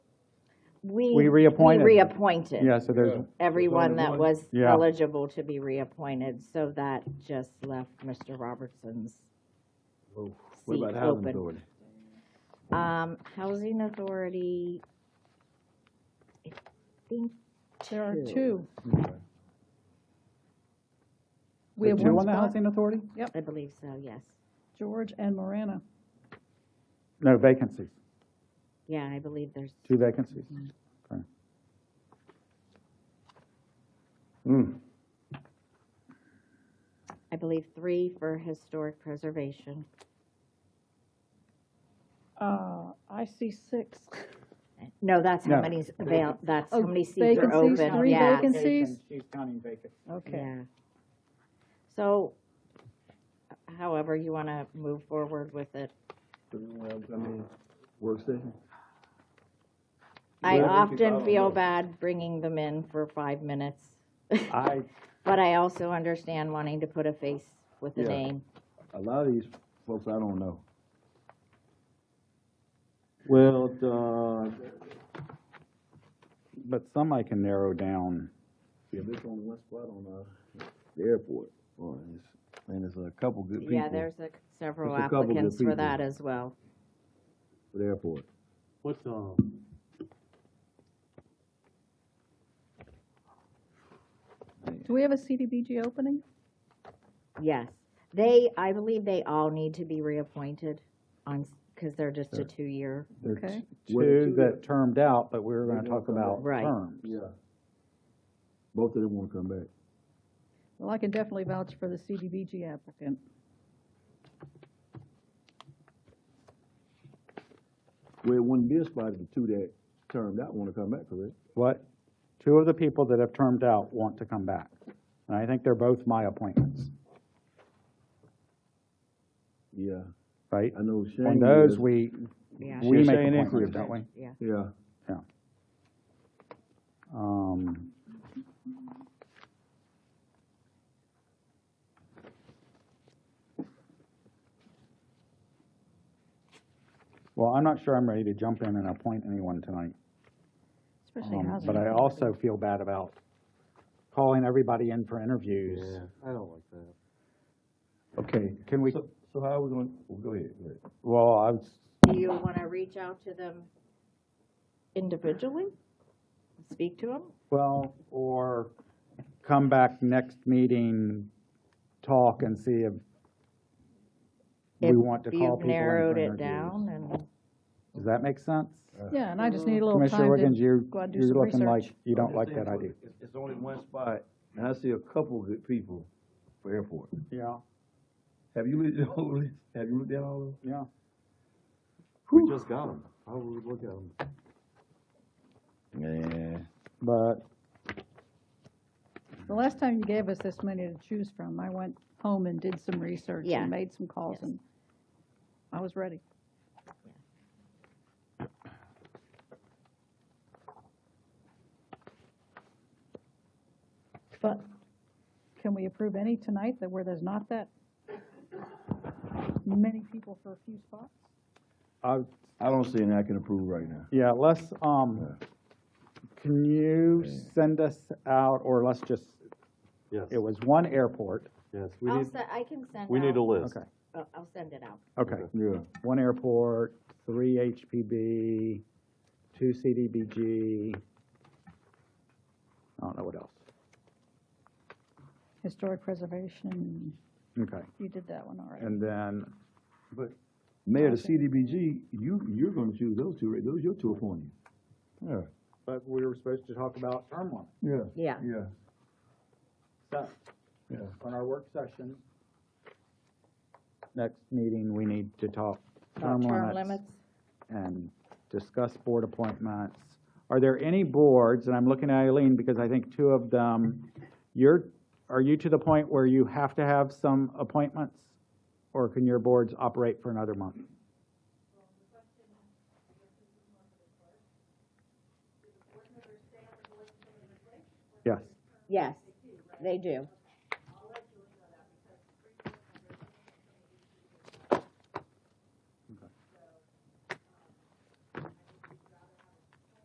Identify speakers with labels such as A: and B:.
A: We.
B: We reappointed.
A: We reappointed.
B: Yeah, so there's,
C: Yeah.
A: Everyone that
C: one.
A: was
B: Yeah.
A: eligible to be reappointed, so that just left Mr. Robertson's
D: What
A: seat
D: about housing
A: open.
D: authority?
A: Um, Housing Authority, I think
E: There are
A: Two.
E: two.
D: Okay.
E: We have
B: two
E: one
B: on the
E: spot,
B: housing authority?
A: I believe so, yes.
E: George and Morana.
B: No, vacancies,
A: Yeah, I believe there's,
B: two vacancies.
D: Hmm.
A: I believe three for historic preservation.
E: Uh, I see six.
A: No, that's how
B: No.
A: many avail, that's how
E: Oh,
A: many seats are
E: vacancies,
A: open,
E: three
A: yeah,
E: vacancies. Vacancies.
B: She's counting vacancies.
E: Okay.
A: yeah. So, however you wanna move forward with it.
C: I mean,
D: Work session?
A: I
C: Where would you
A: often
C: go?
A: feel bad bringing them in for five minutes,
B: I,
A: but I also understand wanting to put a face with a
D: Yeah.
A: name.
D: A lot of these folks, I don't know.
C: Well, uh,
B: but some I can narrow down.
D: Yeah, there's only one spot on, uh, the airport, Boy, it's- and there's a couple good people
A: Yeah,
D: for
A: there's a- several
D: There's a couple good
A: applicants for
D: people.
A: that as well.
D: the airport.
C: what's, um,
E: Do we have a CDBG opening?
A: Yes. They, I believe they all need to be reappointed on, because they're just a two-year.
D: There's
E: Okay.
D: what,
B: Two that termed out, but we were gonna
D: They
B: talk
D: won't come
B: about
A: back. Right.
B: terms.
D: Yeah. Both of them wanna come back.
E: Well, I can definitely vouch for the CDBG applicant.
D: Well, it wouldn't be a spot if the two that termed out wanna come back, correct?
B: What, two of the people that have termed out want to come back. And I think they're both my appointments,
D: Yeah,
B: right?
D: I know Shane.
B: On those,
D: is-
B: we,
A: Yeah.
B: we
C: She's
B: make
C: saying
B: appointments,
C: increase.
B: don't we?
A: Yeah.
D: Yeah,
B: Um, Well, I'm not sure I'm ready to jump in and appoint anyone tonight,
E: Especially
B: um,
E: housing.
B: but I
E: authority.
B: also feel bad about calling everybody in for interviews.
C: yeah, I don't like that.
D: okay.
B: Can we,
D: So, so how are we gonna, well, go ahead, go ahead.
B: well, I was,
A: Do you want to reach out to them individually? Speak to them?
B: well, or come back next meeting, talk and see if we
A: If
B: want to call people in
A: You've
B: for
A: narrowed it
B: interviews.
A: down and,
B: Does that make sense?
E: Yeah, and I just need a little
B: Commissioner
E: time
B: Wiggins,
E: to
B: you,
E: go out and do
B: you're
E: some
B: looking like
E: research.
B: you don't
D: I'm
B: like
D: just
B: that
D: saying,
B: idea.
D: it's- It's only one spot, and I see a couple good people for airport.
B: Yeah,
D: Have you looked at all of this? Have you looked at all of them?
B: yeah.
C: We just got them. How would we look at them?
D: Yeah.
B: But,
E: The last time you gave us this many to choose from, I went home and did some research
A: Yeah.
E: and made some calls
A: Yes.
E: and I was ready. But can we approve any tonight that where there's not that many people for a few spots?
B: uh,
D: I don't see any I can approve right now.
B: yeah, let's, um, can you
D: Yeah.
B: send us out, or let's just,
C: Yes,
B: it was one airport,
C: yes, we
A: I'll,
C: need,
A: se- I can send out.
C: we need a list.
B: okay,
A: I'll- I'll send it out.
B: okay.
D: Yeah,
B: One airport, three HPB, two CDBG. I don't know what else.
E: Historic preservation,
B: Okay,
E: you did that one already.
B: and then,
D: Mayor, the CDBG, you, you're gonna choose those two, right? Those, your two appointees. Yeah,
B: but we were supposed to talk about term limits.
D: yeah,
A: Yeah.
D: yeah,
B: So,
D: yeah.
B: on our work session, next meeting, we need to talk term
A: Term
B: limits
A: limits?
B: and discuss board appointments. Are there any boards, and I'm looking at Eileen because I think two of them, you're, are you to the point where you have to have some appointments? Or can your boards operate for another month? Yes,
A: Yes, they do.